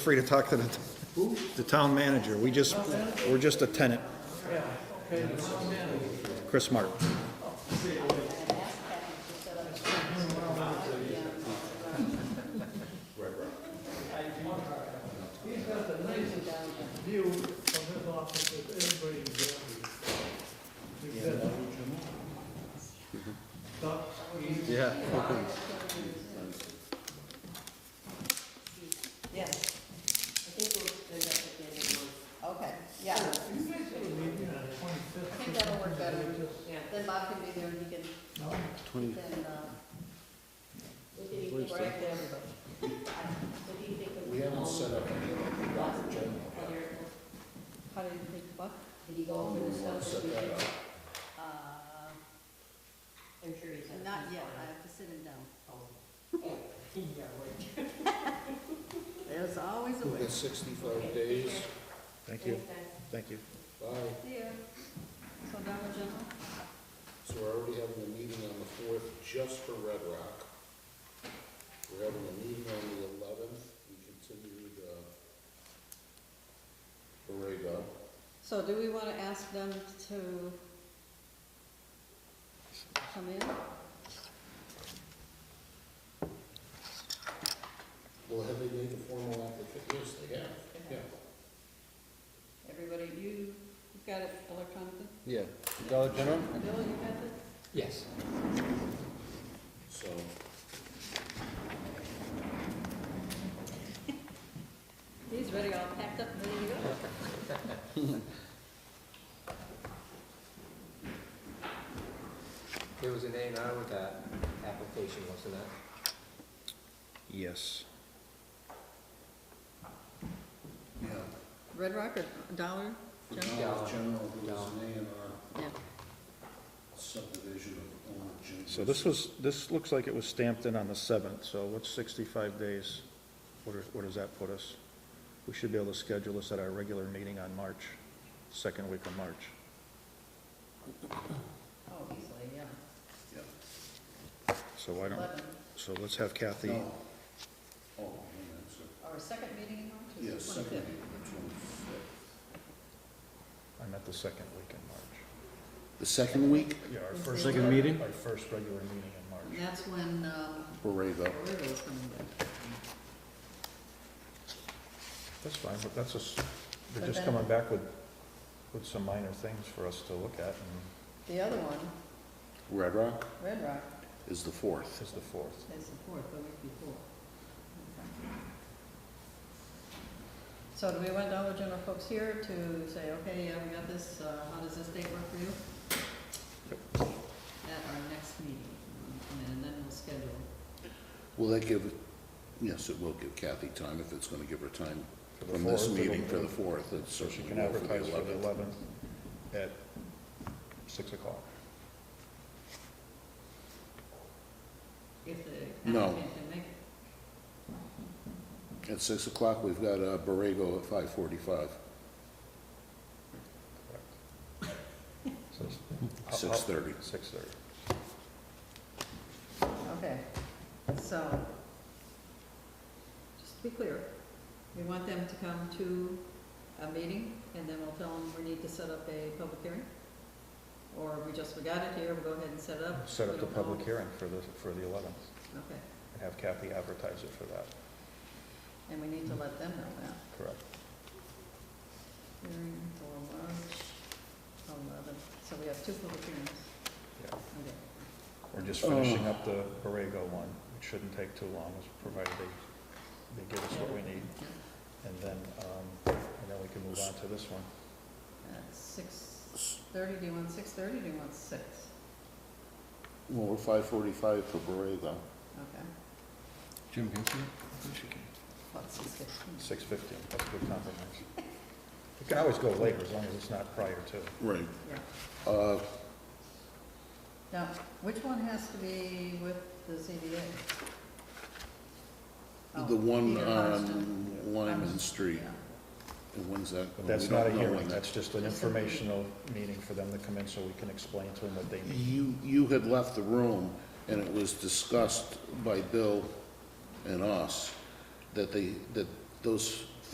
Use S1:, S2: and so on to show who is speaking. S1: free to talk to the, the town manager. We just, we're just a tenant. Chris Martin.
S2: view of his office if everybody is happy. Ducks, geese,
S1: Yeah.
S3: Yes. I think we'll end up at the end of the month. Okay, yeah. I
S2: you guys are leaving on the twenty-fifth.
S3: think that'll work better. Yeah, then Bob can be there and he can,
S4: Twenty,
S3: then, uh, we can eat right there. What do you think of? We haven't set up any How did you think, what? Did he go over the stuff that we did? Uh,
S5: I'm sure he's. not-
S3: not yet, I have to sit him down.
S5: Yeah, right.
S3: There's always a way.
S4: sixty-five days,
S1: Thank you, thank you.
S4: bye.
S3: Yeah. So now we're general?
S4: So we're already having a meeting on the fourth just for Red Rock. We're having a meeting on the eleventh, we continued, uh, Borrego.
S3: So do we want to ask them to come in?
S4: Well, have they made a formal application? Yes, they have. Yeah.
S3: Everybody, you, you've got it electronically?
S6: Yeah, Dollar General?
S3: Bill, you got it?
S6: Yes.
S4: So,
S3: He's ready, all packed up, and ready to go.
S6: There was an A and R with that application, wasn't there?
S1: Yes.
S4: yeah,
S3: Red Rock or Dollar General?
S4: Dollar General, who was
S6: Dollar.
S4: an A and R
S3: Yeah.
S4: subdivision of Old Jim.
S1: So this was, this looks like it was stamped in on the seventh, so what's sixty-five days? What are- Where does that put us? We should be able to schedule this at our regular meeting on March, second week of March.
S3: Oh, easily, yeah.
S4: Yeah.
S1: So why don't,
S3: Eleven,
S1: so let's have Kathy,
S4: No. Oh, yeah, that's it.
S3: our second meeting in March is the
S4: Yes, second
S3: twenty-fifth.
S4: meeting, twenty-fifth.
S1: I meant the second week in
S4: The second week?
S1: March. Yeah, our
S3: Is
S1: first.
S3: there-
S1: Second meeting? Our first regular meeting in March.
S3: And that's when, um,
S4: Borrego.
S3: Borrego's coming back.
S1: That's fine, but that's just, they're
S3: But
S1: just
S3: then-
S1: coming back with, with some minor things for us to look at, and
S3: The other one,
S4: Red Rock
S3: Red Rock,
S4: is the fourth.
S1: this is the fourth.
S3: is the fourth, the week before. Okay. So do we want Dollar General folks here to say, okay, yeah, we got this, uh, how does this date work for you? At our next meeting, and then we'll schedule.
S4: Will that give, yes, it will give Kathy time, if it's gonna give her time
S1: For the
S4: from this
S1: fourth,
S4: meeting for
S1: it'll-
S4: the fourth, it's
S1: So she
S4: certainly
S1: can
S4: will for the
S1: advertise for the
S4: eleventh.
S1: eleventh at six o'clock.
S3: If the
S4: No.
S3: applicant can make it.
S4: At six o'clock, we've got uh, Borrego at five forty-five,
S1: So it's- I'll- I'll-
S4: six thirty.
S1: Six thirty.
S3: Okay, so, just to be clear, we want them to come to a meeting, and then we'll tell them we need to set up a public hearing? Or we just forgot it here, we'll go ahead and set it up?
S1: Set
S3: we
S1: up the
S3: don't know.
S1: public hearing for the, for the eleventh,
S3: Okay,
S1: and have Kathy advertise it for that,
S3: and we need to let them know that.
S1: correct?
S3: Hearing for March eleven, so we have two public hearings.
S1: Yeah.
S3: Okay.
S1: We're just
S4: Oh.
S1: finishing up the Borrego one, which shouldn't take too long, as provided they, they give us what we need. And then, um, and then we can move on to this one.
S3: At six thirty, do you want six thirty, do you want six?
S4: Well, we're five forty-five for Borrego.
S3: Okay,
S6: Jim, can
S3: what's six fifteen?
S1: Six fifteen, that's a good compromise. It can always go later, as long as it's not prior to.
S4: Right.
S3: Yeah.
S4: Uh,
S3: Now, which one has to be with the ZBA? Oh,
S4: the one
S3: Peter Constant.
S4: on Lyman Street,
S3: Yeah.
S4: and when's that?
S1: But that's
S4: We
S1: not
S4: don't
S1: a
S4: know
S1: hearing,
S4: when that-
S1: that's just an
S3: That's a meeting.
S1: informational meeting for them to come in so we can explain to them what they need.
S4: You, you had left the room, and it was discussed by Bill and us that they, that those